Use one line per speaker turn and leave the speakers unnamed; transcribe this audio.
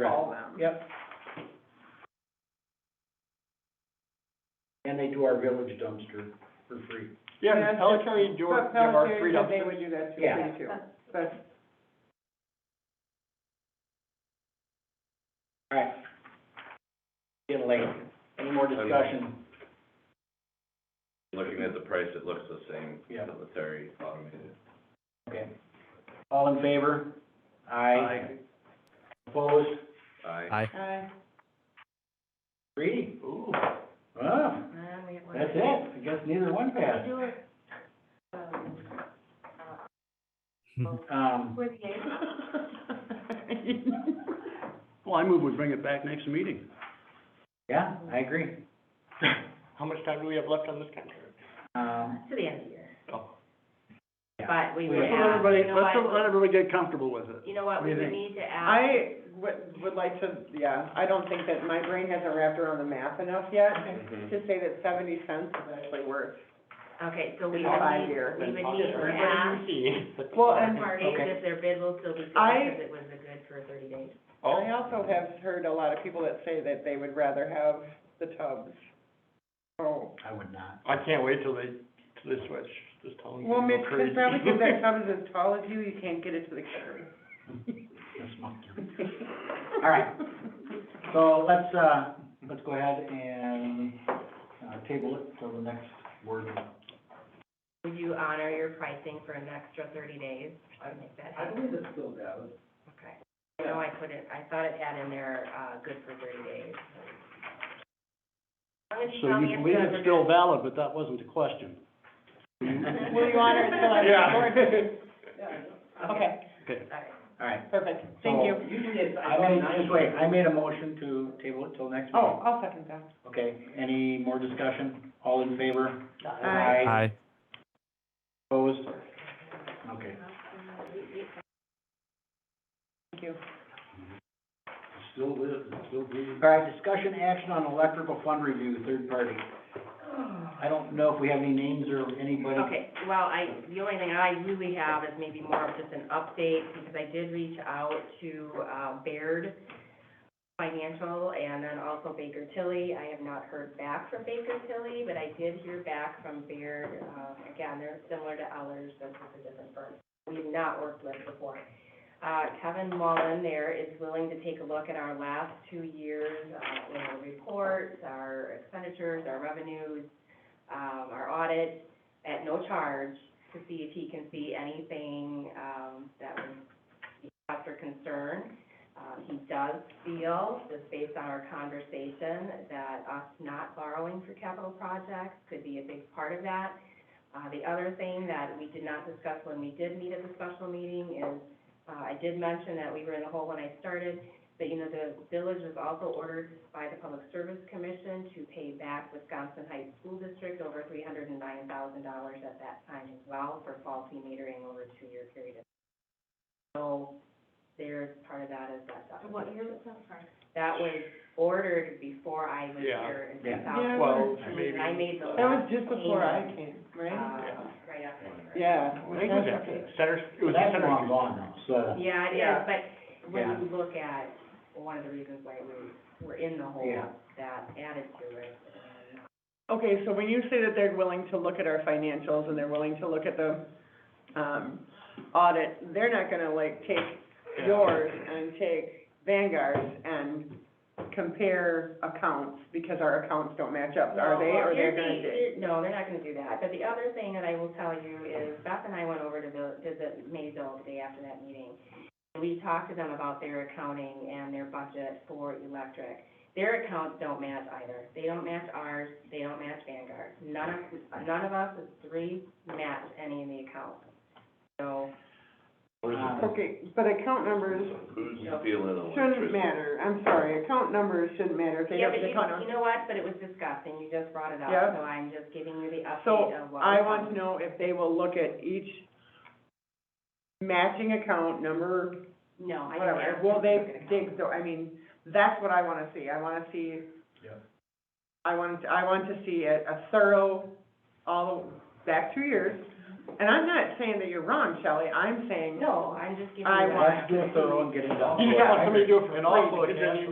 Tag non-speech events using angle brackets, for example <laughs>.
Right.
call them.
Yep. And they do our village dumpster for free.
Yeah, Pelican County do our,
But
give our
Pelican,
three
They
dumpsters.
would do that too,
Yeah.
they too. But
Alright. Getting late. Any more discussion?
Looking at the price, it looks the same,
Yeah.
military automated.
Okay. All in favor? Aye. Opposed?
Aye.
Aye.
Aye.
Three? Ooh. Wow,
Nah, we have one.
that's it. I guess neither one passed.
Do it. Um,
Um,
We're the eighth.
Well, I move we bring it back next meeting.
yeah, I agree.
<laughs> How much time do we have left on this contract?
Um,
To the end of the year.
Oh.
But we
Yeah.
would
Let's
Let's
let
let
ask,
everybody,
you know
let's
what,
let everybody get comfortable with it.
you know what,
What do
we
you
would
think?
need to ask.
I would, would like to, yeah, I don't think that, my brain hasn't wrapped around the math enough yet to say that seventy cents is actually worth.
Okay, so we
It's
would
five
need,
years.
we would need to ask
Well,
both
and
parties
Okay.
if their bid will still be good,
I-
because it was a good for thirty days.
I also have heard a lot of people that say that they would rather have the tubs. Oh,
I would not.
I can't wait till they, till they switch, this town.
well, Mitch, it's probably because
<laughs>
that tub is as tall as you, you can't get it to the curb.
That's my- All right. So let's, uh, let's go ahead and, uh, table it till the next word.
Would you honor your pricing for an extra thirty days or make that happen?
believe it's still valid.
Okay. I know I put it, I thought it had in there, uh, good for thirty days. As long as you
So
tell me
you
if
believe
the
it's
other-
still valid, but that wasn't the question.
<laughs> Will you honor it till I'm
Yeah.
Okay,
Okay,
Sorry.
All right.
perfect, thank you.
So, I made, just wait, I made a motion to table it till next
Oh,
meeting.
I'll second that.
Okay, any more discussion? All in favor?
Aye.
Aye.
Opposed? Okay,
Thank you.
Still lives, it still breathes.
all right, discussion action on electrical fund review, third party. I don't know if we have any names or anybody.
Okay, well, I, the only thing I really have is maybe more of just an update, because I did reach out to, uh, Baird Financial and then also Baker Tilly. I have not heard back from Baker Tilly, but I did hear back from Baird. Uh, again, they're similar to Ellers, this is a different firm. We've not worked with before. Uh, Kevin Mullen there is willing to take a look at our last two years, uh, you know, reports, our expenditures, our revenues, um, our audits, at no charge to see if he can see anything, um, that would be cause for concern. Uh, he does feel, just based on our conversation, that us not borrowing for capital projects could be a big part of that. Uh, the other thing that we did not discuss when we did meet at the special meeting is, uh, I did mention that we were in a hole when I started, but, you know, the village was also ordered by the Public Service Commission to pay back Wisconsin Heights School District over three hundred and nine thousand dollars at that time as well for faulty metering over a two-year period. of So there's part of that is that documentation. What year was that That was ordered before I was
Yeah.
here in
Yeah.
two
Yeah.
thousand. uh,
Twelve, maybe.
I made the last.
That was just before I
payment,
came,
uh,
right?
Right after. I started.
Yeah.
I think it was after Center, it was
That's
Center
long
Street.
gone now, so.
Yeah, it is,
Yeah.
but
Yeah.
when you look at, one of the reasons why we were in the hole,
Yeah.
that added to it. and
Okay, so when you say that they're willing to look at our financials and they're willing to look at the, um, audit, they're not gonna like take
Yeah.
yours and take Vanguard's and compare accounts because our accounts don't match up, are they,
Well,
or they're
here's
gonna
the-
do?
No, they're not gonna do that, but the other thing that I will tell you is Beth and I went over to the, visit Maysville the day after that meeting. We talked to them about their accounting and their budget for electric. Their accounts don't match either, they don't match ours, they don't match Vanguard, none of, none of us, the three, match any of the accounts. So,
Um,
Okay, but account numbers
Who's stealing
shouldn't
electricity?
matter, I'm sorry, account numbers shouldn't matter if they
Yeah,
don't
but
have the
you,
account
you
numbers.
know what, but it was discussed, and you just brought it up,
Yeah.
so I'm just giving you the
So,
update of what.
I want to know if they will look at each matching account number
No, I didn't
whatever,
ask
will
them to look
they
at
dig, the- I mean, that's what I wanna see, I wanna see.
Yeah.
I want, I want to see a, a thorough, all, the- back two years, And I'm not saying that you're wrong, Shelley, I'm saying
No, I'm just giving you.
I
that
Let's do it thorough and get it done.
You just want somebody to do it for free, because then you